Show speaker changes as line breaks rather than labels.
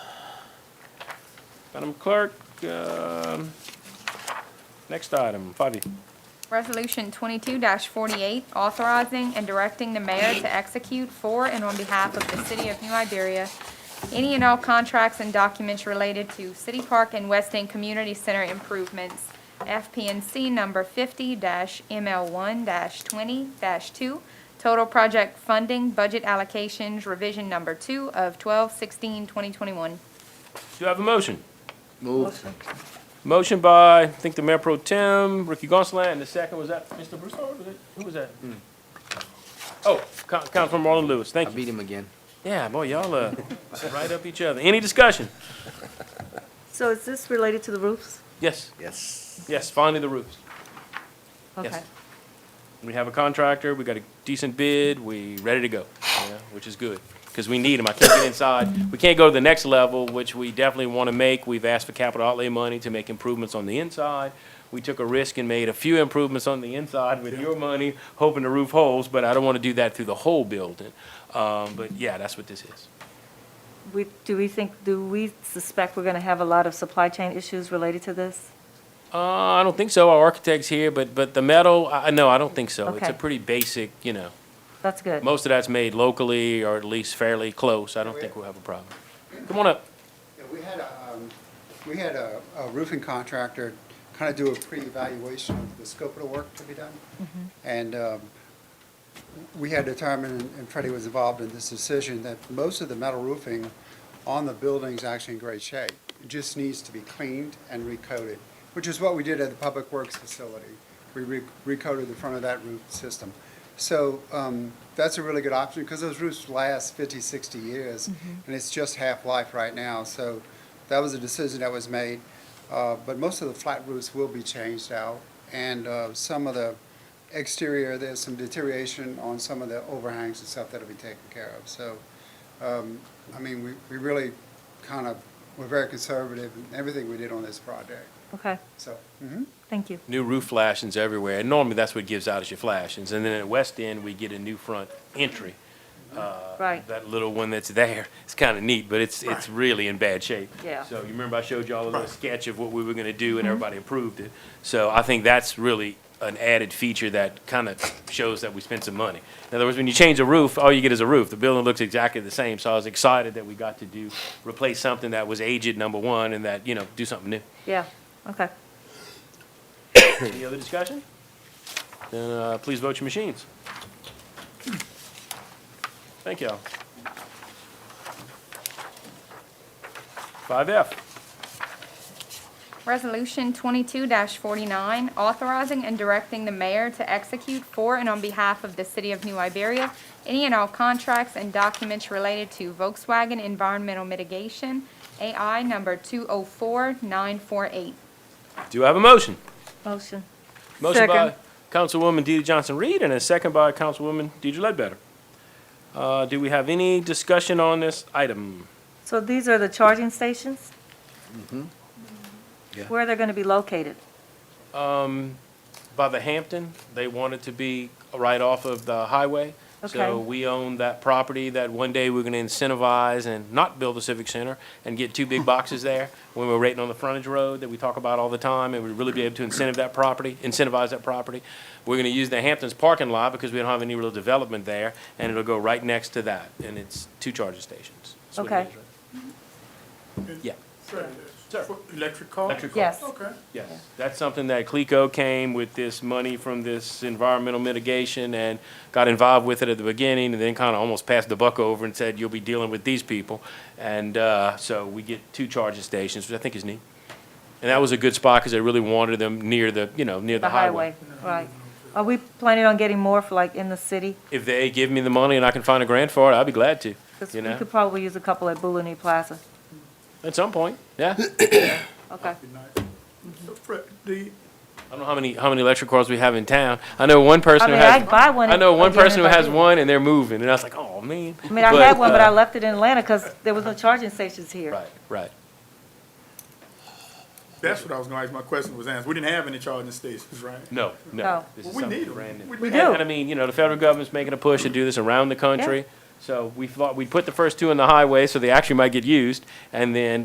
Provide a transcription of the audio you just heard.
Madam Clerk, um, next item, 5E.
Resolution twenty-two forty-eight, authorizing and directing the mayor to execute for and on behalf of the city of New Iberia any and all contracts and documents related to City Park and West End Community Center improvements, FPNC number fifty ML one twenty two, total project funding budget allocations revision number two of 12-16-2021.
Do you have a motion?
Move.
Motion by, I think the Mayor Pro Tem, Ricky Gonsalas, and the second, was that Mr. Broussard? Was it- Who was that? Oh, Coun- Councilman Marlon Lewis,
I
thank you.
beat him again.
Yeah, boy, y'all, uh, right up each other. Any discussion?
So is this related to the roofs?
Yes,
Yes.
yes, finally the roofs. Yes.
Okay.
We have a contractor, we got a decent bid, we ready to go, you know, which is good, because we need them. I can't get inside. We can't go to the next level, which we definitely want to make. We've asked for capital outlay money to make improvements on the inside. We took a risk and made a few improvements on the inside with your money, hoping to roof holes, but I don't want to do that through the whole building. Um, but yeah, that's what this is.
We, do we think, do we suspect we're going to have a lot of supply chain issues related to this?
Uh, I don't think so. Our architect's here, but, but the metal, I, I- no, I don't think so. It's a
Okay.
pretty basic, you know,
That's good.
most of that's made locally or at least fairly close. I don't think we'll have a problem. Come on up.
Yeah, we had a, um, we had a a roofing contractor kind of do a pre-evaluation of the scope of the work to be done. And um, we had determined, and Freddie was involved in this decision, that most of the metal roofing on the building is actually in great shape. It just needs to be cleaned and recoated, which is what we did at the Public Works facility. We re- recoated the front of that roof system. So um, that's a really good option because those roofs last 50, 60 years, and it's just half-life right now. So that was a decision that was made. Uh, But most of the flat roofs will be changed out, and uh, some of the exterior, there's some deterioration on some of the overhangs and stuff that'll be taken care of. So, um, I mean, we, we really kind of, were very conservative in everything we did on this project,
Okay,
so. mhm.
thank you.
New roof flashings everywhere. And normally that's what gives out is your flashings. And then at West End, we get a new front entry.
Right.
Uh, That little one that's there, it's kind of neat, but it's, it's really in bad shape.
Yeah. Mm-hmm.
So you remember I showed y'all a little sketch of what we were going to do and everybody approved it. So I think that's really an added feature that kind of shows that we spent some money. In other words, when you change a roof, all you get is a roof. The building looks exactly the same. So I was excited that we got to do, replace something that was aged, number one, and that, you know, do something new.
Yeah, okay.
Any other discussion? Then uh, please vote your machines. Thank y'all. Five F,
Resolution twenty-two forty-nine, authorizing and directing the mayor to execute for and on behalf of the city of New Iberia any and all contracts and documents related to Volkswagen Environmental Mitigation, AI number two oh four nine four eight.
do I have a motion?
Motion.
Motion by
Second.
Councilwoman DeeDee Johnson-Reed and a second by Councilwoman Deidre Ledbetter. Uh, Do we have any discussion on this item?
So these are the charging stations?
Mm-hmm.
Yeah.
Where are they going to be located?
Um, by the Hampton, they want it to be right off of the highway.
Okay.
So we own that property that one day we're gonna incentivize and not build a civic center and get two big boxes there when we're rating on the frontage road that we talk about all the time and we really be able to incentive that property, incentivize that property. We're gonna use the Hamptons parking lot because we don't have any real development there and it'll go right next to that and it's two charging stations. That's what it
Okay. Mm-hmm.
is, right? Yeah. Sir.
For Electric car?
Electric car.
Yes,
Okay.
Yes, that's something that CLECO came with this money from this environmental mitigation and got involved with it at the beginning and then kind of almost passed the buck over and said, you'll be dealing with these people. And uh, so we get two charging stations, which I think is neat. And that was a good spot because they really wanted them near the, you know, near
the highway, right. Are we planning on getting more for like in the city?
If they give me the money and I can find a grant for it, I'd be glad to,
Because
you
we
know,
could probably use a couple at Bulani Plaza.
at some point, yeah.
Okay,
So Fred,
I
the,
don't know how many, how many electric cars we have in town. I know one person who
mean,
has.
I'd buy one
I know
if-
one
again,
person
if
who
I
has
did.
one and they're moving and I was like, oh, man.
I mean, I had one, but I
uh,
left it in Atlanta because there was no charging stations here.
Right, right.
that's what I was gonna ask, my question was answered, we didn't have any charging stations, right?
No, no.
No.
This
Well,
is
we
something
need 'em.
brand new.
We
We
need
do.
'em.
And I mean, you know, the federal government's making a push to do this around the country. So we thought, we'd put the first two in the highway, so they actually might get used. And then